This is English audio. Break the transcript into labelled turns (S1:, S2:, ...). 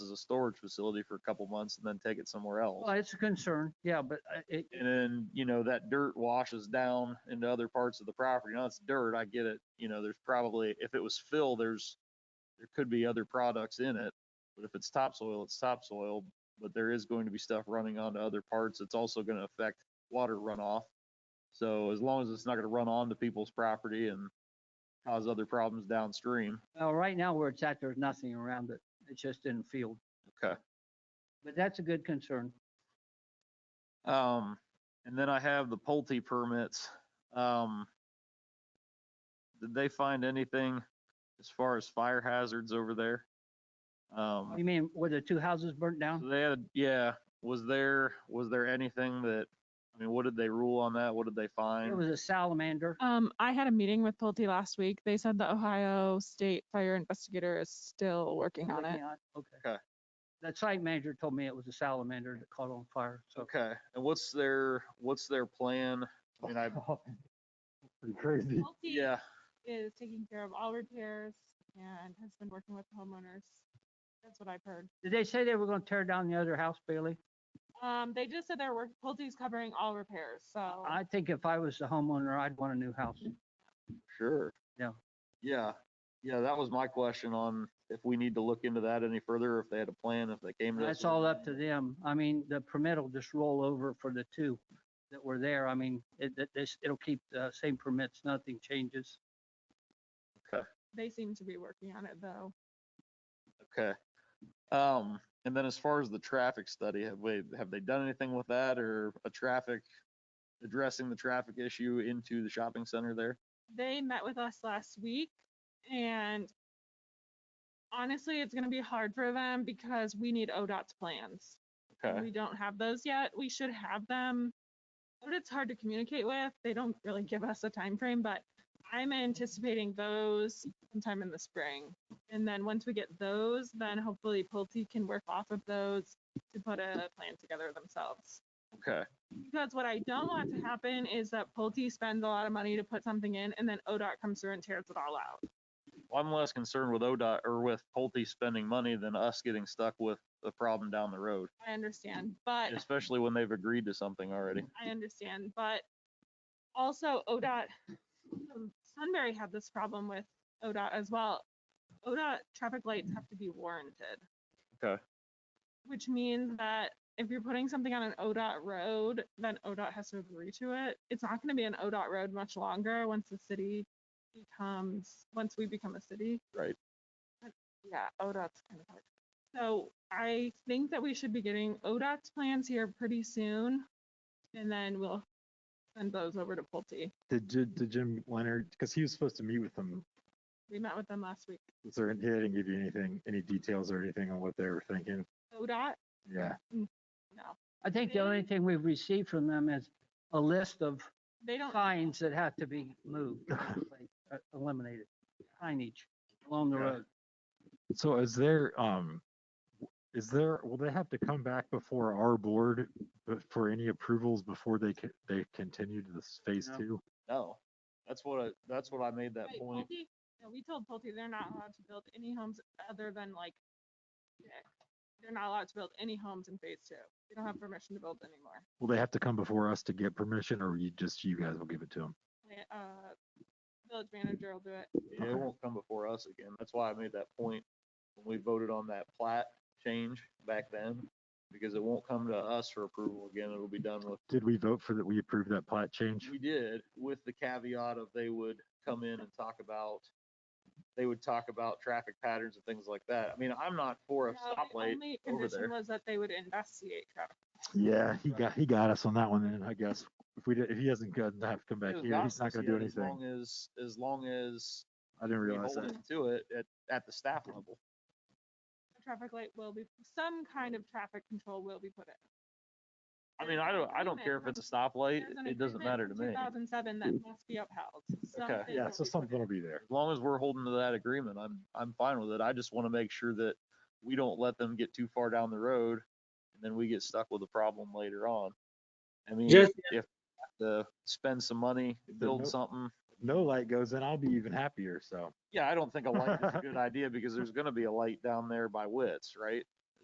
S1: a storage facility for a couple months and then take it somewhere else.
S2: Well, it's a concern, yeah, but I- it,
S1: And then, you know, that dirt washes down into other parts of the property. Now it's dirt, I get it. You know, there's probably, if it was fill, there's, there could be other products in it. But if it's topsoil, it's topsoil, but there is going to be stuff running onto other parts. It's also going to affect water runoff. So as long as it's not going to run onto people's property and cause other problems downstream.
S2: well, right now where it's at, there's nothing around it. It's just in the field.
S1: Okay.
S2: But that's a good concern.
S1: Um, and then I have the Pulte permits. Um, did they find anything as far as fire hazards over there? Um,
S2: You mean were the two houses burnt down?
S1: so they had, yeah, was there, was there anything that, I mean, what did they rule on that? What did they
S2: It
S1: find?
S2: was a salamander.
S3: Um, I had a meeting with Pulte last week. They said the Ohio State Fire Investigator is still working on it.
S2: working on- Okay.
S1: Okay.
S2: The site manager told me it was a salamander that caught on fire, so.
S1: Okay, and what's their, what's their plan? I mean, I,
S4: Pretty crazy.
S1: yeah,
S3: is taking care of all repairs and has been working with homeowners. That's what I've heard.
S2: Did they say they were gonna tear down the other house, Bailey?
S3: Um, they just said they're work, Pulte's covering all repairs, so.
S2: I think if I was the homeowner, I'd want a new house.
S1: sure.
S2: Yeah.
S1: Yeah, yeah, that was my question on if we need to look into that any further, if they had a plan, if they came to us.
S2: That's
S1: with-
S2: all up to them. I mean, the permit will just roll over for the two that were there. I mean, it, it, this- it'll keep the same permits, nothing changes.
S3: They seem to be working on it though.
S1: Okay. Um, and then as far as the traffic study, have we, have they done anything with that or a traffic, addressing the traffic issue into the shopping center there?
S3: They met with us last week and honestly, it's gonna be hard for them because we need ODOT's plans.
S1: Okay,
S3: We don't have those yet. We should have them. But it's hard to communicate with. They don't really give us a time frame, but I'm anticipating those sometime in the spring. And then once we get those, then hopefully Pulte can work off of those to put a plan together themselves.
S1: okay,
S3: Because what I don't want to happen is that Pulte spends a lot of money to put something in and then ODOT comes through and tears it all out.
S1: Well, I'm less concerned with ODOT or with Pulte spending money than us getting stuck with the problem down the road,
S3: I understand, but
S1: especially when they've agreed to something already.
S3: I understand, but also ODOT, um, Sunbury had this problem with ODOT as well. ODOT traffic lights have to be warranted.
S1: Okay.
S3: Which means that if you're putting something on an ODOT road, then ODOT has to agree to it. It's not gonna be an ODOT road much longer once the city becomes, once we become a city.
S1: Right.
S3: But, Yeah, ODOT's kind of hard. So I think that we should be getting ODOT's plans here pretty soon. And then we'll send those over to Pulte.
S4: Did, Ji- did Jim Leonard, because he was supposed to meet with them,
S3: We met with them last week.
S4: was there, he didn't give you anything, any details or anything on what they were thinking?
S3: ODOT?
S4: Yeah.
S3: No,
S2: I think the only thing we've received from them is a list of
S3: they don't.
S2: signs that have to be moved, like, uh, eliminated, signage along the
S4: Yeah.
S2: road.
S4: So is there, um, w- is there, will they have to come back before our board b- for any approvals before they, ca- they continue to this phase
S2: No.
S4: two?
S1: No, that's what, I that's what I made that
S3: Wait,
S1: point.
S3: Pulte? No, we told Pulte they're not allowed to build any homes other than like, yeah, they're not allowed to build any homes in phase two. They don't have permission to build anymore.
S4: Will they have to come before us to get permission or you just, you guys will give it to them?
S3: They- Uh, village manager will do it.
S1: Yeah, It
S4: Okay.
S1: won't come before us again. That's why I made that point when we voted on that plat change back then, because it won't come to us for approval again. It'll be done with,
S4: Did we vote for that? We approved that plat change?
S1: we did, with the caveat of they would come in and talk about, they would talk about traffic patterns and things like that. I mean, I'm not for a
S3: No, the
S1: stoplight.
S3: only
S1: over there.
S3: condition was that they would investigate traffic.
S4: Yeah, he got, he got us on that one then, I guess. If we did, if he hasn't got, have to come back
S1: It was
S4: here, he's
S1: us
S4: not gonna
S1: yet,
S4: do
S1: As
S4: anything.
S1: long as, as long as
S4: I didn't
S1: we
S4: realize
S1: hold
S4: that.
S1: them to it at, at the staff level.
S3: A traffic light will be, some kind of traffic control will be put in.
S1: I mean, I don't, I don't care if it's a stoplight.
S3: There's an
S1: It doesn't
S3: agreement
S1: matter to
S3: from
S1: me.
S3: 2007 that must be upheld. Something
S4: Yeah,
S3: will be
S4: so
S3: put in.
S4: something will be there.
S1: As long as we're holding to that agreement, I'm, I'm fine with it. I just want to make sure that we don't let them get too far down the road and then we get stuck with a problem later on. I mean, if
S5: Just-
S1: we have to spend some money, build
S4: no-
S1: something.
S4: No light goes in, I'll be even happier, so.
S1: Yeah, I don't think a light is a good idea because there's going to be a light down there by Wits, right?